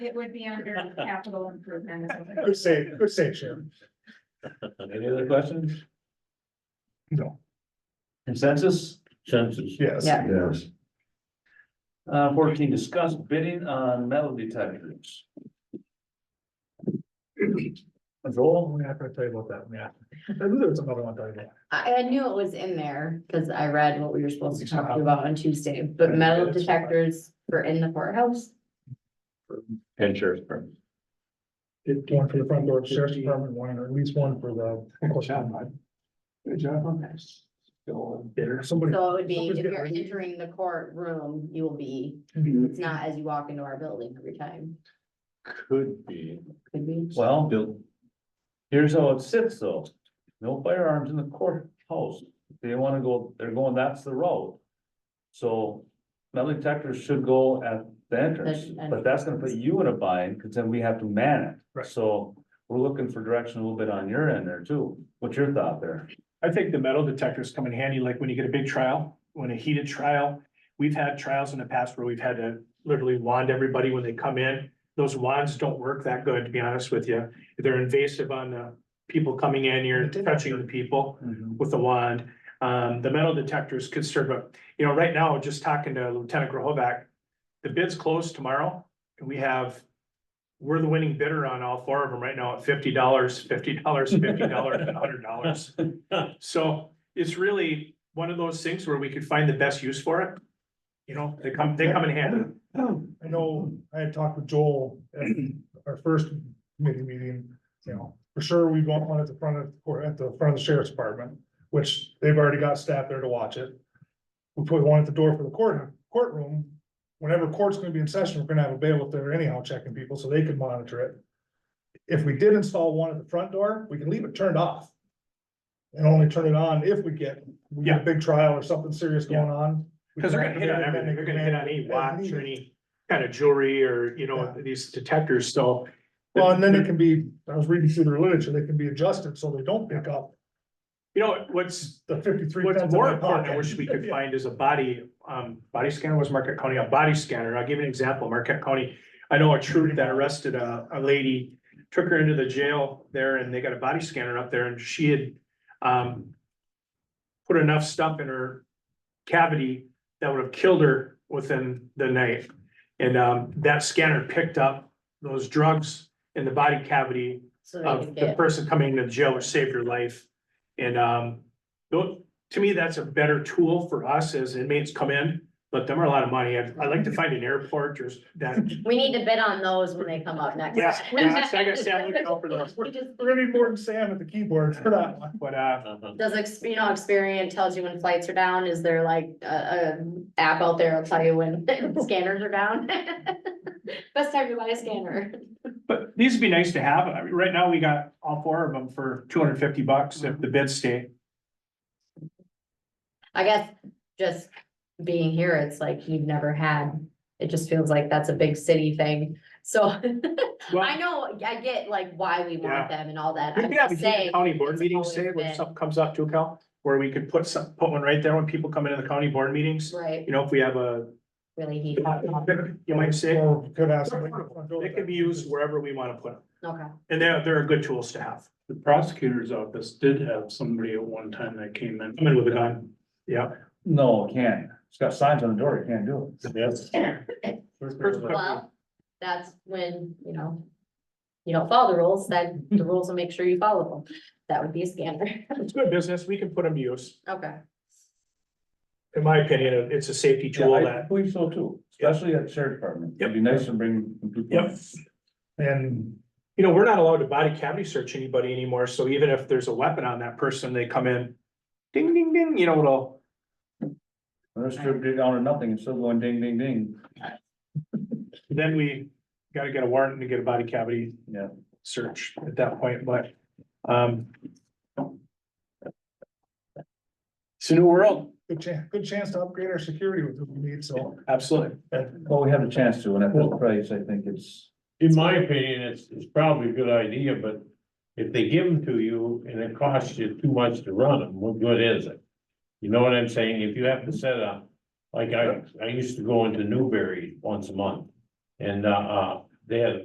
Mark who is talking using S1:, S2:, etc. S1: It would be under capital improvement.
S2: Good save, good save, Sharon.
S3: Any other questions?
S2: No.
S3: Consensus?
S4: Census.
S2: Yes.
S5: Yeah.
S4: Yes.
S3: Uh, fourteen, discuss bidding on metal detectors.
S2: Joel, I'm gonna tell you about that, yeah. I knew there was another one, Doug.
S5: I, I knew it was in there, cause I read what we were supposed to talk about on Tuesday, but metal detectors were in the courthouse.
S4: And sheriff's department.
S2: Did one for the front door, of the sheriff's department, one, or at least one for the. Good job, bud. Good job. Bitter, somebody.
S5: So it would be, if
S2: somebody's
S5: you're
S2: getting-
S5: entering the courtroom, you will be, it's not as you walk into our building every time,
S4: Could be.
S5: could be.
S3: Well,
S4: Bill.
S3: here's how it sits though. No firearms in the courthouse. They wanna go, they're going, that's the road. So metal detectors should go at the entrance,
S5: The-
S3: but that's gonna put you in a bind, cause then we have to man it.
S2: Right.
S3: So we're looking for direction a little bit on your end there too. What's your thought there?
S6: I think the metal detectors come in handy, like when you get a big trial, when a heated trial. We've had trials in the past where we've had to literally wand everybody when they come in. Those wands don't work that good, to be honest with you. They're invasive on the people coming in, you're touching the people with the wand. Um, the metal detectors could serve up, you know, right now, just talking to Lieutenant Grohovac. The bid's closed tomorrow and we have. We're the winning bidder on all four of them right now at fifty dollars, fifty dollars, fifty dollars, and hundred dollars. So it's really one of those things where we could find the best use for it. You know, they come, they come in handy.
S2: I know, I had talked with Joel at our first committee meeting, you know, for sure, we want one at the front of, or at the front of the sheriff's department, which they've already got staff there to watch it. We put one at the door for the court, courtroom, whenever court's gonna be in session, we're gonna have a bailiff there anyhow checking people, so they can monitor it. If we did install one at the front door, we can leave it turned off. And only turn it on if we get, we get a big trial or something serious going on. We
S6: Because they're
S2: can
S6: gonna hit on
S2: activate it,
S6: everything,
S2: and
S6: they're gonna hit on any
S2: as
S6: watch
S2: needed.
S6: or any kind of jewelry or, you know, these detectors, so.
S2: Well, and then it can be, I was reading through their literature, they can be adjusted so they don't pick up
S6: You know, what's,
S2: the fifty-three.
S6: what's
S2: pence in
S6: more
S2: my
S6: important, I
S2: pocket.
S6: wish we could
S2: Yeah.
S6: find is a body, um, body scanner was Marquette County, a body scanner, I'll give you an example, Marquette County. I know a troop that arrested a, a lady, took her into the jail there and they got a body scanner up there and she had, um. Put enough stuff in her cavity that would have killed her within the night. And, um, that scanner picked up those drugs in the body cavity
S5: So they
S6: of
S5: could
S6: um, the
S5: get,
S6: person coming into jail or save your life. And um, tho- to me, that's a better tool for us as inmates come in, but them are a lot of money. I'd, I'd like to find an airport or s- that.
S5: we need to bid on those when they come up next.
S6: Yeah, yeah, so I got Sam looking out for those.
S5: You just-
S2: We're gonna be more than Sam at the keyboard for that one.
S6: But uh,
S5: Does, ex- you know, Experian tells you when flights are down, is there like a, a app out there will tell you when scanners are down? Best time to buy a scanner.
S6: but these would be nice to have. I mean, right now, we got all four of them for two hundred and fifty bucks if the bids stay.
S5: I guess just being here, it's like you've never had, it just feels like that's a big city thing. So I
S6: Well,
S5: know, I get like why we
S6: Yeah.
S5: want them and all that.
S6: we
S5: I'm
S6: could have a
S5: just
S6: Union
S5: saying,
S6: county board
S5: it's
S6: meeting,
S5: always
S6: say, when
S5: been-
S6: something comes up to Cal, where we could put some, put one right there when people come into the county board meetings.
S5: right,
S6: You know, if we have a,
S5: really heat.
S6: you might say,
S2: Or could ask.
S6: They can be used wherever we want to put them,
S5: Okay.
S6: and they're, they're good tools to have.
S7: The prosecutor's office did have somebody at one time that came in.
S6: Come in with a gun, yeah.
S3: No, it can't. It's got signs on the door, you can't do it.
S4: Yes.
S5: Well, that's when, you know, you don't follow the rules, then the rules will make sure you follow them. That would be a scanner.
S6: It's good business, we can put them to use.
S5: Okay.
S6: In my opinion, it- it's a safety tool
S3: Yeah, I
S6: that,
S3: believe so too, especially at the sheriff department. It'd be nice to bring. people.
S6: Yep.
S2: And
S6: you know, we're not allowed to body cavity search anybody anymore, so even if there's a weapon on that person, they come in. Ding, ding, ding, you know, it'll,
S3: Let's strip it down to nothing and still going ding, ding, ding.
S6: then we gotta get a warrant to get a body cavity.
S3: Yeah.
S6: Search at that point, but, um. It's a new world,
S2: good chance, good chance to upgrade our security with what we need, so.
S6: absolutely.
S3: Well, we have a chance to, and at this price, I think it's,
S4: In my opinion, it's, it's probably a good idea, but if they give them to you and it costs you too much to run them, what good is it? You know what I'm saying? If you have to set up, like I, I used to go into Newberry once a month. And, uh, uh,
S3: they had a